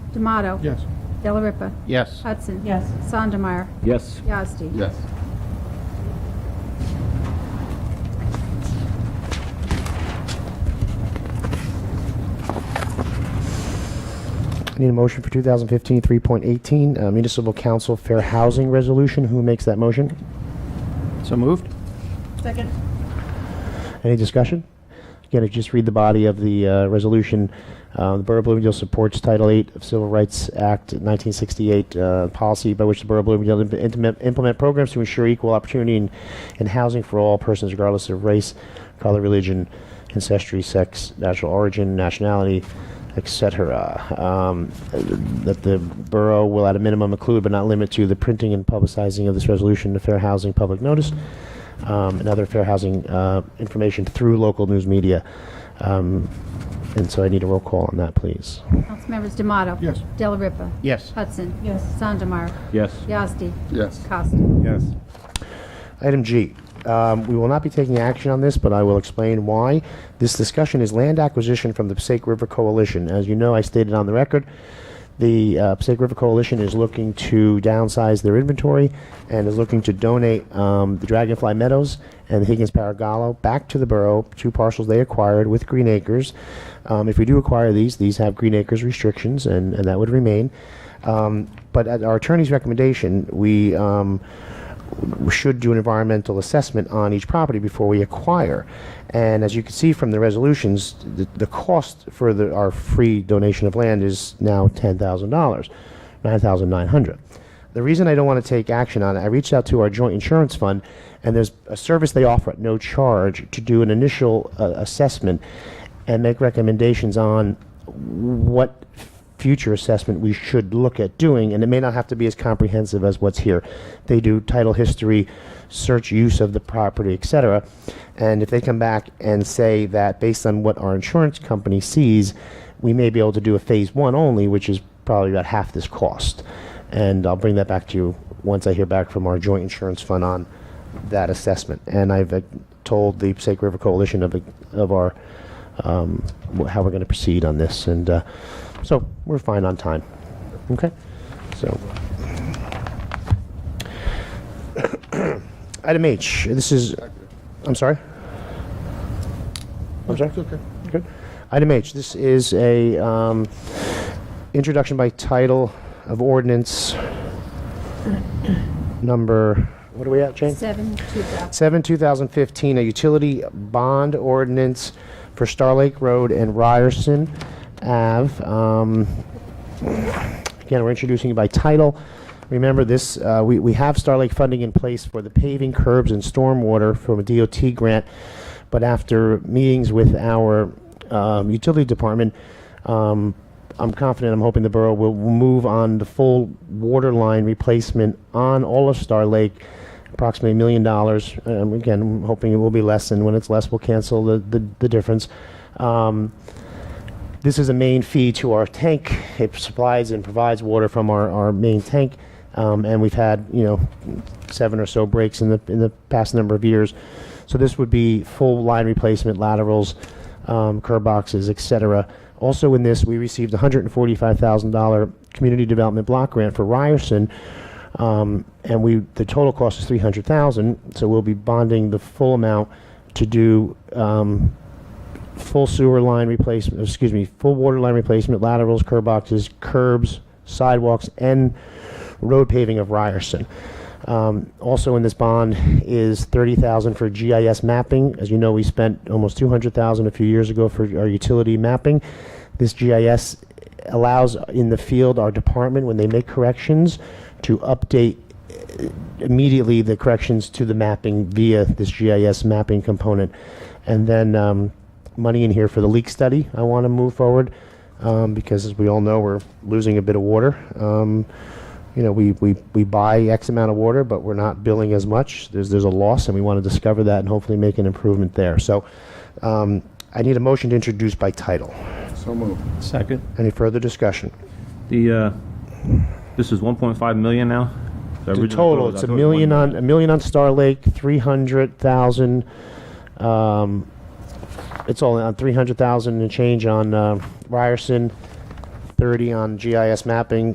D'Amato. Yes. Della Ripa. Yes. Hudson. Yes. Sandemeyer. Yes. Yazdi. Yes. Need a motion for 2015 3.18 uh, Municipal Council Fair Housing Resolution. Who makes that motion? So moved? Second. Any discussion? Again, if you just read the body of the uh, resolution, uh, the Borough of Bloomingdale supports Title VIII of Civil Rights Act 1968 uh, policy by which the Borough of Bloomingdale imp- implement, implement programs to ensure equal opportunity in, in housing for all persons regardless of race, color, religion, ancestry, sex, national origin, nationality, etc. Um, that the borough will at a minimum include but not limit to the printing and publicizing of this resolution to fair housing public notice um, and other fair housing uh, information through local news media. Um, and so I need a roll call on that, please. Councilmembers D'Amato. Yes. Della Ripa. Yes. Hudson. Yes. Sandemeyer. Yes. Yazdi. Yes. Costa. Yes. Item G. Um, we will not be taking action on this, but I will explain why. This discussion is land acquisition from the Passaic River Coalition. As you know, I stated on the record, the uh, Passaic River Coalition is looking to downsize their inventory and is looking to donate um, the Dragonfly Meadows and the Higgins Paragallo back to the borough, two parcels they acquired with Green Acres. Um, if we do acquire these, these have Green Acres restrictions, and, and that would remain. Um, but at our attorney's recommendation, we um, we should do an environmental assessment on each property before we acquire. And as you can see from the resolutions, the, the cost for the, our free donation of land is now ten thousand dollars, nine thousand nine hundred. The reason I don't want to take action on it, I reached out to our joint insurance fund, and there's a service they offer at no charge to do an initial uh, assessment and make recommendations on what future assessment we should look at doing, and it may not have to be as comprehensive as what's here. They do title history, search use of the property, et cetera. And if they come back and say that based on what our insurance company sees, we may be able to do a phase one only, which is probably about half this cost. And I'll bring that back to you once I hear back from our joint insurance fund on that assessment. And I've uh, told the Passaic River Coalition of, uh, of our, um, wh- how we're going to proceed on this. And uh, so we're fine on time. Okay? So. Item H, this is, I'm sorry? I'm sorry? okay. Good. Item H, this is a um, introduction by title of ordinance number, what are we at, Jane? Seven, two thousand. 7, 2015, a utility bond ordinance for Star Lake Road and Ryerson Ave. Um, Again, we're introducing it by title. Remember this, uh, we we have Star Lake funding in place for the paving curbs and stormwater from a DOT grant, but after meetings with our um, utility department, um, I'm confident, I'm hoping the borough will move on the full water line replacement on all of Star Lake approximately a million dollars. Um, again, I'm hoping it will be less, and when it's less, we'll cancel the, the, the difference. Um, this is a main fee to our tank. It supplies and provides water from our, our main tank. Um, and we've had, you know, seven or so breaks in the, in the past number of years. So this would be full line replacement, laterals, um, curb boxes, et cetera. Also in this, we received a $145,000 community development block grant for Ryerson, um, and we, the total cost is 300,000, so we'll be bonding the full amount to do, um, full sewer line replacement, excuse me, full water line replacement, laterals, curb boxes, curbs, sidewalks, and road paving of Ryerson. Um, also in this bond is 30,000 for GIS mapping. As you know, we spent almost 200,000 a few years ago for our utility mapping. This GIS allows in the field our department when they make corrections to update uh, immediately the corrections to the mapping via this GIS mapping component. And then um, money in here for the leak study. I want to move forward um, because, as we all know, we're losing a bit of water. Um, you know, we, we, we buy X amount of water, but we're not billing as much. There's, there's a loss, and we want to discover that and hopefully make an improvement there. So um, I need a motion to introduce by title. So moved. Second. Any further discussion? The, uh, this is 1.5 million now? The total, it's a million on, a million on Star Lake, 300,000, um, it's all on 300,000 and change on uh, Ryerson, thirty on GIS mapping